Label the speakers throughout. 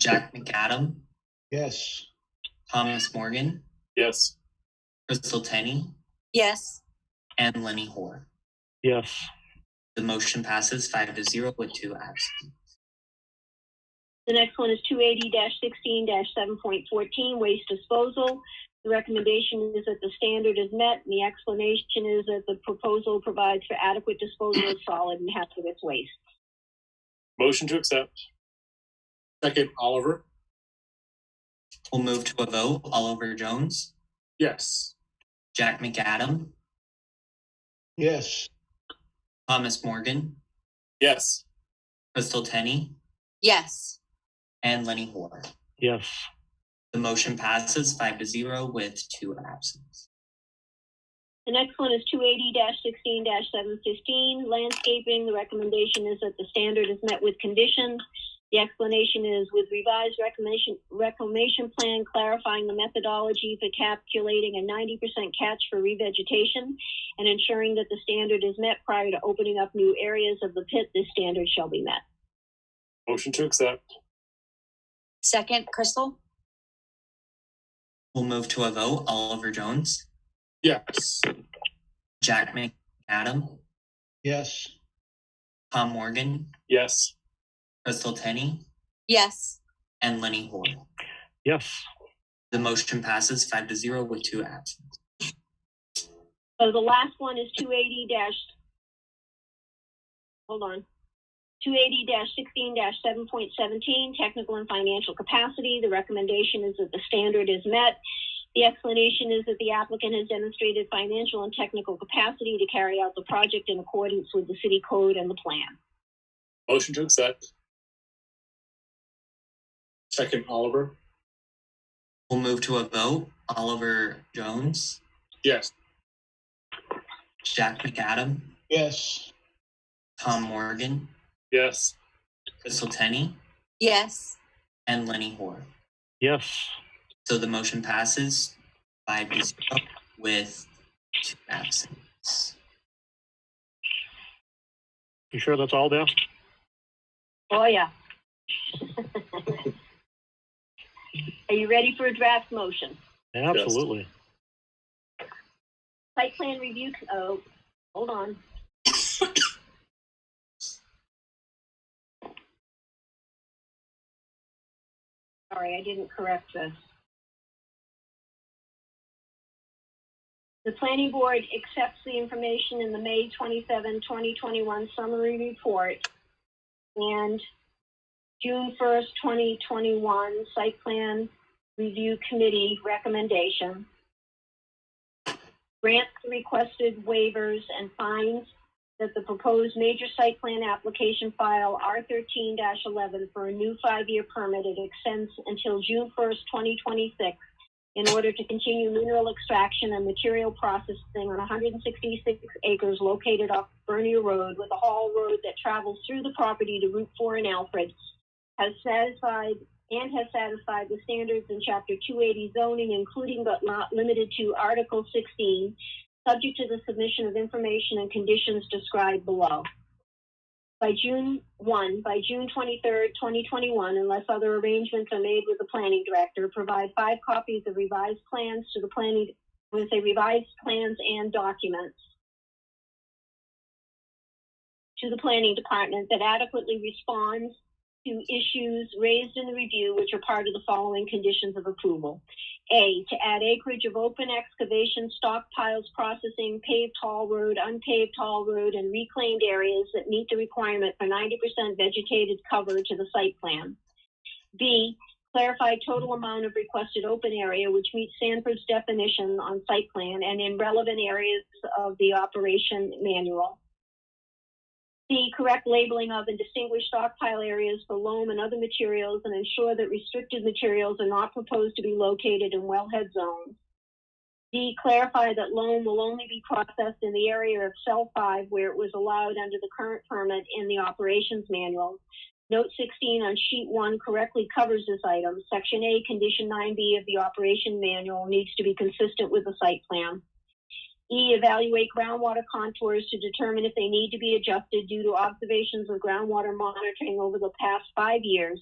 Speaker 1: Jack McAdam,
Speaker 2: Yes.
Speaker 1: Thomas Morgan,
Speaker 3: Yes.
Speaker 1: Crystal Tenney,
Speaker 4: Yes.
Speaker 1: and Lenny Hoare.
Speaker 3: Yes.
Speaker 1: The motion passes five to zero with two absent.
Speaker 4: The next one is two eighty sixteen seven point fourteen, waste disposal. The recommendation is that the standard is met, and the explanation is that the proposal provides for adequate disposal of solid and hazardous waste.
Speaker 3: Motion to accept. Second, Oliver.
Speaker 1: We'll move to a vote. Oliver Jones,
Speaker 3: Yes.
Speaker 1: Jack McAdam,
Speaker 2: Yes.
Speaker 1: Thomas Morgan,
Speaker 3: Yes.
Speaker 1: Crystal Tenney,
Speaker 4: Yes.
Speaker 1: and Lenny Hoare.
Speaker 3: Yes.
Speaker 1: The motion passes five to zero with two absent.
Speaker 4: The next one is two eighty sixteen seven fifteen, landscaping. The recommendation is that the standard is met with conditions. The explanation is with revised reclamation, reclamation plan clarifying the methodology for calculating a ninety percent catch for revegetation and ensuring that the standard is met prior to opening up new areas of the pit, this standard shall be met.
Speaker 3: Motion to accept.
Speaker 4: Second, Crystal?
Speaker 1: We'll move to a vote. Oliver Jones,
Speaker 3: Yes.
Speaker 1: Jack McAdam,
Speaker 2: Yes.
Speaker 1: Tom Morgan,
Speaker 3: Yes.
Speaker 1: Crystal Tenney,
Speaker 4: Yes.
Speaker 1: and Lenny Hoare.
Speaker 3: Yes.
Speaker 1: The motion passes five to zero with two absent.
Speaker 4: So the last one is two eighty dash, hold on. Two eighty sixteen seven point seventeen, technical and financial capacity. The recommendation is that the standard is met. The explanation is that the applicant has demonstrated financial and technical capacity to carry out the project in accordance with the city code and the plan.
Speaker 3: Motion to accept. Second, Oliver.
Speaker 1: We'll move to a vote. Oliver Jones,
Speaker 3: Yes.
Speaker 1: Jack McAdam,
Speaker 2: Yes.
Speaker 1: Tom Morgan,
Speaker 3: Yes.
Speaker 1: Crystal Tenney,
Speaker 4: Yes.
Speaker 1: and Lenny Hoare.
Speaker 3: Yes.
Speaker 1: So the motion passes five to zero with two absent.
Speaker 3: You sure that's all, Dan?
Speaker 4: Oh, yeah. Are you ready for a draft motion?
Speaker 3: Absolutely.
Speaker 4: Site plan review, oh, hold on. Sorry, I didn't correct this. The planning board accepts the information in the May 27, 2021 summary report and June 1st, 2021 site plan review committee recommendation grant the requested waivers and finds that the proposed major site plan application file R thirteen eleven for a new five-year permit, it extends until June first, twenty twenty-six in order to continue mineral extraction and material processing on hundred and sixty-six acres located off Bernier Road with a haul road that travels through the property to Route four in Alfred, has satisfied and has satisfied the standards in Chapter 280 zoning, including but not limited to Article 16, subject to the submission of information and conditions described below. By June 1, by June 23rd, 2021, unless other arrangements are made with the planning director, provide five copies of revised plans to the planning, when say revised plans and documents to the planning department that adequately responds to issues raised in the review which are part of the following conditions of approval. A, to add acreage of open excavation, stockpiles, processing, paved haul road, unpaved haul road, and reclaimed areas that meet the requirement for ninety percent vegetated cover to the site plan. B, clarify total amount of requested open area which meets Sanford's definition on site plan and in relevant areas of the operation manual. C, correct labeling of and distinguish stockpile areas for loam and other materials and ensure that restricted materials are not proposed to be located in wellhead zones. D, clarify that loam will only be processed in the area of cell five where it was allowed under the current permit in the operations manual. Note sixteen on sheet one correctly covers this item. Section A, condition nine B of the operation manual needs to be consistent with the site plan. E, evaluate groundwater contours to determine if they need to be adjusted due to observations of groundwater monitoring over the past five years.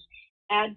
Speaker 4: Add